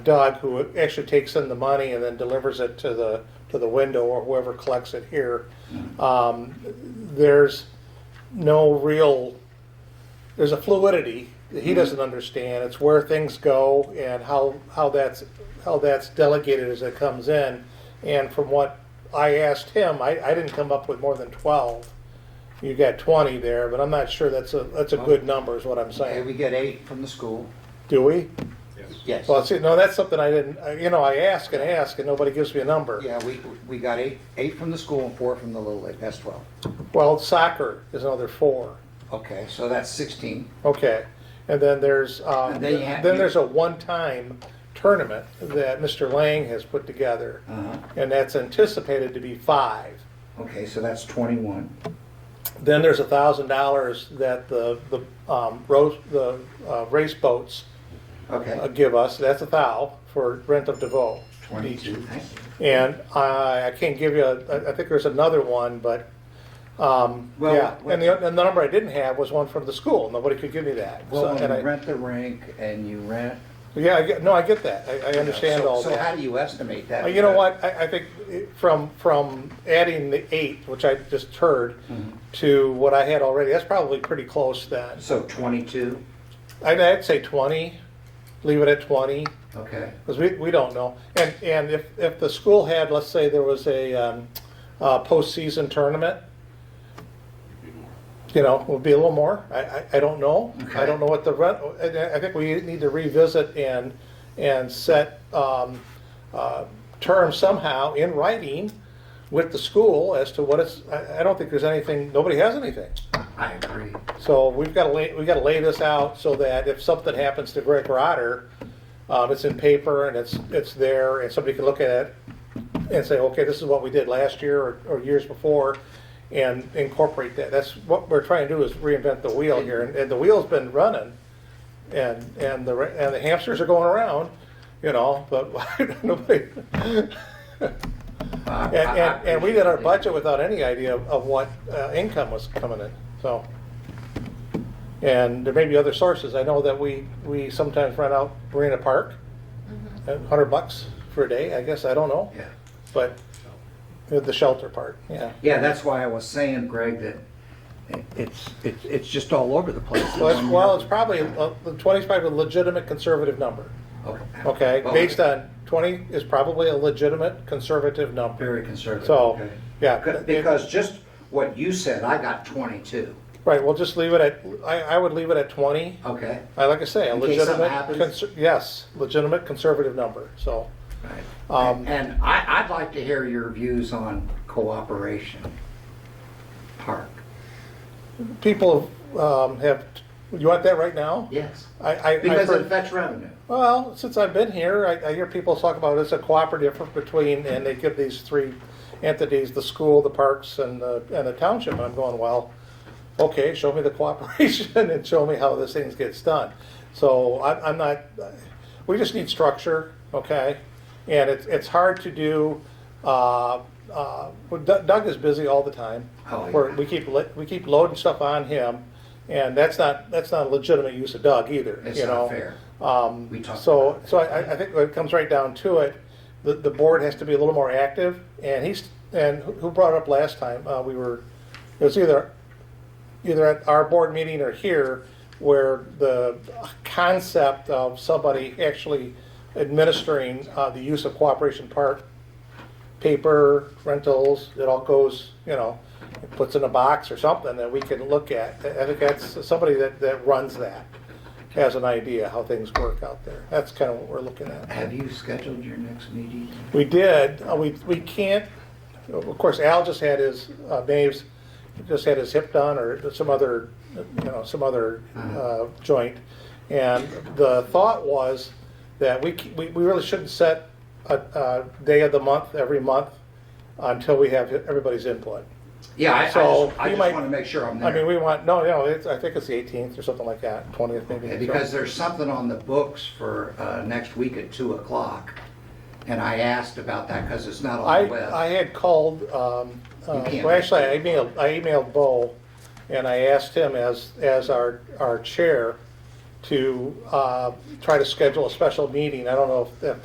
Doug, who actually takes in the money and then delivers it to the, to the window or whoever collects it here, um, there's no real, there's a fluidity that Mm-hmm. he doesn't understand. It's where things go and how, how that's, how that's delegated as it comes in. And from what I asked him, I, I didn't come up with more than twelve. You got twenty there, but I'm not sure that's a, that's a good number is what I'm Okay, we saying. get eight from the school, Do we? yes. Well, see, no, that's something I didn't, I- you know, I ask and ask and nobody gives me a number. Yeah, we, we got eight, eight from the school and four from the Little League, that's 12. Well, soccer is another four. Okay, so that's 16. Okay. And then there's, um, And then you then have- there's a one-time tournament that Mr. Lang has put together. Uh-huh. And that's anticipated to be five. Okay, so that's 21. Then there's a thousand dollars that the, the, um, row the, uh, race boats uh, Okay, give us. That's a thou for rent of DeVoe. 22, each. thank you. And I, I can't give you, a- I I think there's another one, but, um, Well, yeah. what- And the, and the number I didn't have was one from the school. Nobody could give me that. So- Well, when and I- you rent the rink and you rent. Yeah, I get, no, I get that. I, I understand So- all So how that. do you estimate Uh, that? You know what, I, I think it- from, from adding the eight, which I just heard, Mm-hmm. to what I had already, that's probably pretty close then. So 22, I'd, I'd say twenty, leave it at twenty. okay. Because we, we don't know. And, and if, if the school had, let's say there was a, um, uh, postseason tournament, you know, would be a little more. I, I, I don't know. I Okay. don't know what the rent, and I I think we need to revisit and, and set, um, uh, terms somehow in writing with the school as to what it's, I, I don't think there's anything, nobody has anything. I agree. So we've got to lay, we've got to lay this out so that if something happens to Greg Rotter, um, it's in paper and it's, it's there and somebody can look at it and say, okay, this is what we did last year or, or years before and incorporate that. That's what we're trying to do is reinvent the wheel here and, and the wheel's been running. And, and the, ra- and the hamsters are going around, you know, but nobody, Uh, and, and, and we did our budget without any idea of of what uh, income was coming in, so. And there may be other sources. I know that we, we sometimes rent out Marina Park at hundred bucks for a day, I guess, I don't know. Mm-hmm. Yeah. But the shelter part, yeah. Yeah, that's why I was saying, Greg, that it- it's, it's, it's just all over the place. Well, it's, well, it's probably, uh, the twenty's probably a legitimate conservative number, okay? Well, Based on, twenty is probably a legitimate conservative number. Very conservative. So, okay. yeah. Because- Because just what you said, I got 22, Right, we'll just leave it at, I, I would leave it at twenty. okay? I, like I say, a In case something legitimate, happens? conser- yes, legitimate conservative number, so. Um, And I, I'd like to hear your views on cooperation park. people um, have, you want that right now? Yes. I, I, I've Because it heard- affects revenue. well, since I've been here, I, I hear people talk about it's a cooperative effort between, and they give these three entities, the school, the parks, and the, and the township, and I'm going, well, okay, show me the cooperation and show me how this thing gets done. So I'm, I'm not, we just need structure, okay? And it's, it's hard to do, uh, uh, well, Doug Doug is busy all the time. Oh, yeah. We're- We keep, li- we keep loading stuff on him, and that's not, that's not a legitimate use of Doug either, It's you know? not fair. Um, We talked so, about it. so I, I think when it comes right down to it, the, the board has to be a little more active, and he's, and who who brought it up last time, uh, we were, it was either, either at our board meeting or here, where the concept of somebody actually administering, uh, the use of Cooperation Park paper, rentals, it all goes, you know, it puts in a box or something that we can look at. I think that's somebody that, that runs that has an idea how things work out there. That's kind of what we're looking at. Have you scheduled your next meeting? We did, uh, we, we can't, of course, Al just had his, uh, Dave's just had his hip done or some other, you know, some other, Uh-huh. uh, joint. And the thought was that we, c- we, we really shouldn't set a, a day of the month every month until we have everybody's input. Yeah, I, I So, just, I you just might- want to make sure I'm there. I mean, we want, no, no, it's, I think it's the eighteenth or something like that, twentieth maybe. Yeah, So- Because there's something on the books for, uh, next week at two o'clock. And I asked about that because it's not on the web. I, I had called, um, uh, can't. well, actually, I emailed, I emailed Bo, and I asked him as, as our, our chair, to uh, try to schedule a special meeting. I don't know if- if